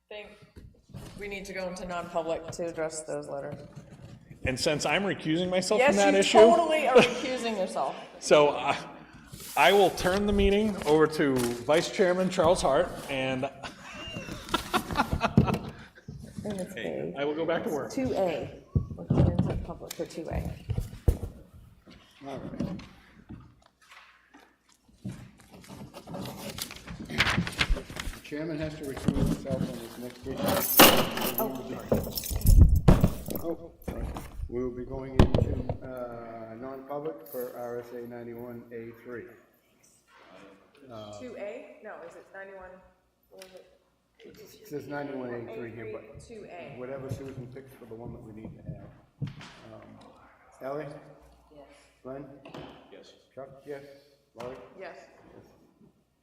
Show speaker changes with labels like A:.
A: think we need to go into non-public to address those letters.
B: And since I'm recusing myself from that
A: Yes,
B: issue.
A: you totally are recusing yourself.
B: So uh, I will turn the meeting over to Vice Chairman Charles Hart, and
A: And it's A,
B: I will go back to work.
A: two A. We're going into public for two A.
C: Chairman has to recuse himself on this next issue. Oh, sorry. We will be going into uh, non-public for RSA 91A3.
A: Two A? No, is it ninety-one? What is it?
C: It says 91A3 here, but
A: Two A.
C: whatever Susan picks for the one that we need to add. Um, Ally? Yes. Glenn? Yes. Chuck, yes. Laurie?
A: Yes.